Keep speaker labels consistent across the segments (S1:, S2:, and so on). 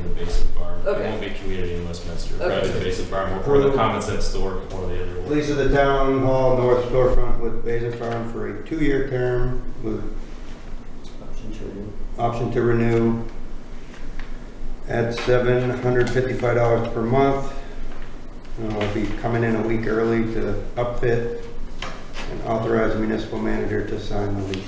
S1: invasive farm. It
S2: Okay.
S1: won't be community in Westminster,
S2: Okay.
S1: private invasive farm, or the common sense store, one or the other. will-
S3: Lease of the town hall north storefront with Basil Farm for a two-year term with option to renew at seven hundred fifty-five dollars per month. And I'll be coming in a week early to upfit and authorize municipal manager to sign the lease.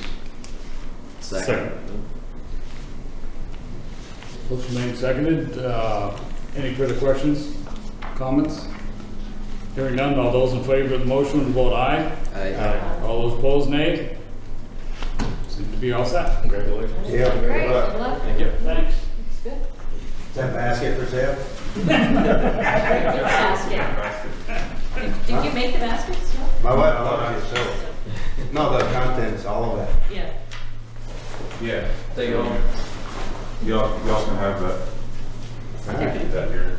S4: Motion made, seconded. Uh, Any further questions, comments? Hearing none, all those in favor of the motion, vote aye. Aye. All those opposed, nay. Seem to be all set. Congratulations.
S3: Yeah.
S2: Great,
S3: good luck.
S2: good luck.
S1: Thank you.
S4: Thanks.
S2: It's good.
S3: Is that basket for sale?
S2: Good basket. Did- Did you make the baskets? No?
S3: My wife loves it, so. No, the contents, all of that.
S2: Yeah.
S5: Yeah,
S1: They go.
S5: y'all, y'all can have that. I can keep that here.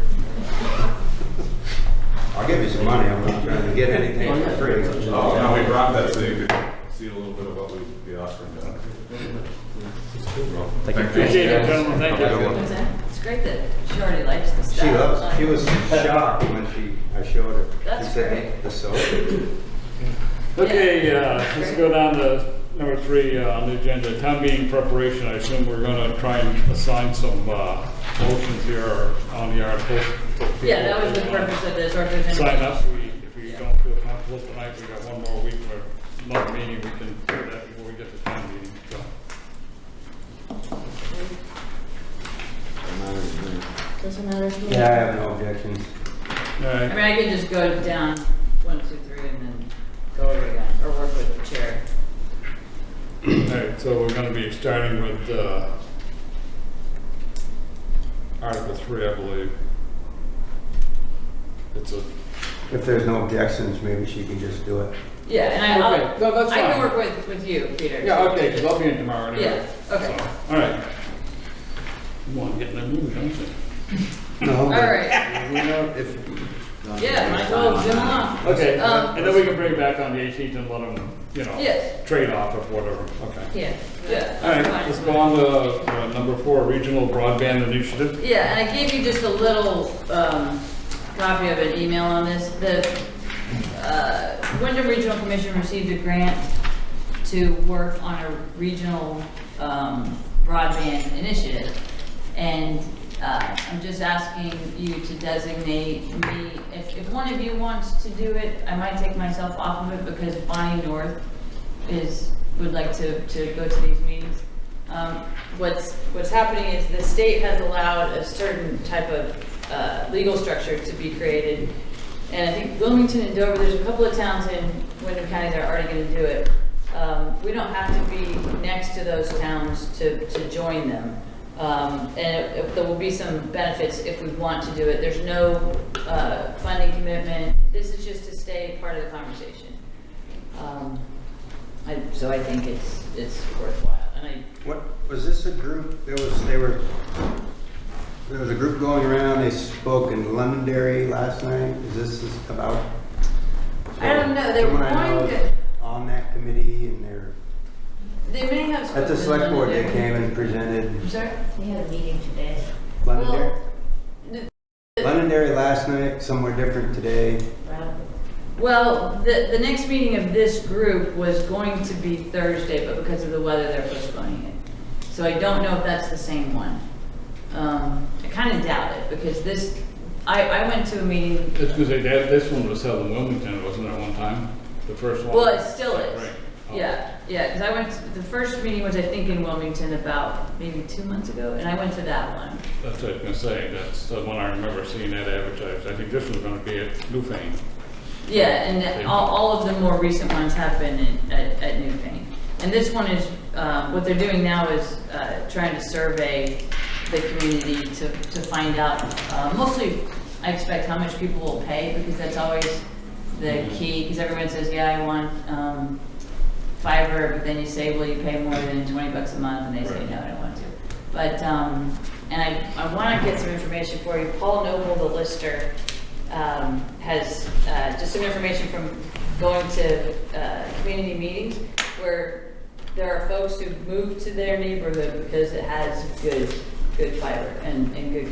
S3: I'll give you some money, I'm not trying to get anything for free.
S5: Oh, no, we brought that so you could see a little bit of what we'd be offering down here. Thank
S4: Appreciate it, gentlemen, thank
S5: Have a good
S4: you.
S5: one.
S2: It's a- it's great that she already likes the stuff.
S3: She loves, she was shocked when she, I showed her.
S2: That's
S3: She said,
S2: great.
S3: The soap?
S4: Okay, uh, let's go down to number three uh, on the agenda, town meeting preparation. I assume we're going to try and assign some uh, motions here on the articles.
S2: Yeah, that was the purpose of this, or if there's
S4: sign
S2: any-
S4: up, we, if we don't feel comfortable tonight, we got one more week for another meeting, we can do that before we get to town meeting, so.
S2: Doesn't matter to me.
S3: Yeah, I have no objections.
S4: All
S2: I
S4: right,
S2: mean, I can just go down one, two, three, and then go over again, or work with the chair.
S4: all right, so we're gonna be starting with, uh, Article three, I believe. It's a,
S3: If there's no objections, maybe she can just do it.
S2: Yeah, and I,
S4: Okay, no,
S2: I'll,
S4: that's
S2: I can
S4: fine.
S2: work with, with you, Peter.
S4: yeah, okay, because I'll be in tomorrow anyway.
S2: Yeah, okay.
S4: So, All right. Come on, get in the mood, don't you?
S2: All right,
S3: If,
S2: yeah, might as well zoom along.
S4: Okay,
S2: Um,
S4: and then we can bring it back on the eighteenth and let them, you know,
S2: Yes,
S4: trade off or whatever, okay.
S2: yeah, yeah.
S4: All right,
S2: fine.
S4: let's go on to uh, number four, regional broadband initiative.
S2: Yeah, and I gave you just a little um, copy of an email on this. The uh, Wyndham Regional Commission received a grant to work on a regional um, broadband initiative. And uh, I'm just asking you to designate me, if, if one of you wants to do it, I might take myself off of it because Bonnie North is, would like to, to go to these meetings. Um, What's, what's happening is the state has allowed a certain type of uh, legal structure to be created. And I think Wilmington and Dover, there's a couple of towns in Wyndham County that are already gonna do it. Um, We don't have to be next to those towns to, to join them. Um, And it- it- there will be some benefits if we want to do it. There's no uh, funding commitment. This is just to stay part of the conversation. Um, I- So I think it's, it's worthwhile. And I,
S3: what, was this a group, there was, they were, there was a group going around, they spoke in Londonderry last night, is this is about?
S2: I don't know, they were
S3: Someone I know
S2: going
S3: is
S2: to-
S3: On that committee and they're,
S2: They may have.
S3: at the
S2: spoken
S3: select board, they
S2: Londonderry.
S3: came and presented
S2: I'm sorry?
S6: We had a meeting today.
S3: Londonderry.
S2: the-
S3: Londonderry last night, somewhere different today.
S6: Rob,
S2: Well, the, the next meeting of this group was going to be Thursday, but because of the weather, they're postponing it. So I don't know if that's the same one. Um, I kind of doubt it, because this, I, I went to a meeting,
S4: It's because they, that- this one was held in Wilmington, wasn't it, one time? The first one?
S2: well, it still is.
S4: Right. Oh.
S2: Yeah, yeah, because I went, to- the first meeting was, I think, in Wilmington about maybe two months ago, and I went to that one.
S4: That's what I was gonna say, that's the one I remember seeing that advertised. I think this one's gonna be at Newfane.
S2: Yeah, and all, all of the more recent ones have been in- at, at Newfane. And this one is, uh, what they're doing now is uh, trying to survey the community to, to find out, uh, mostly, I expect how much people will pay, because that's always the key, because everyone says, yeah, I want um, fiber, but then you say, will you pay more than 20 bucks a month? And they say,
S4: Right.
S2: no, I don't want to. But, um, and I, I want to get some information for you. Paul Noble, the lister, um, has, uh, just some information from going to, uh, community meetings where there are folks who moved to their neighborhood because it has good, good fiber and, and good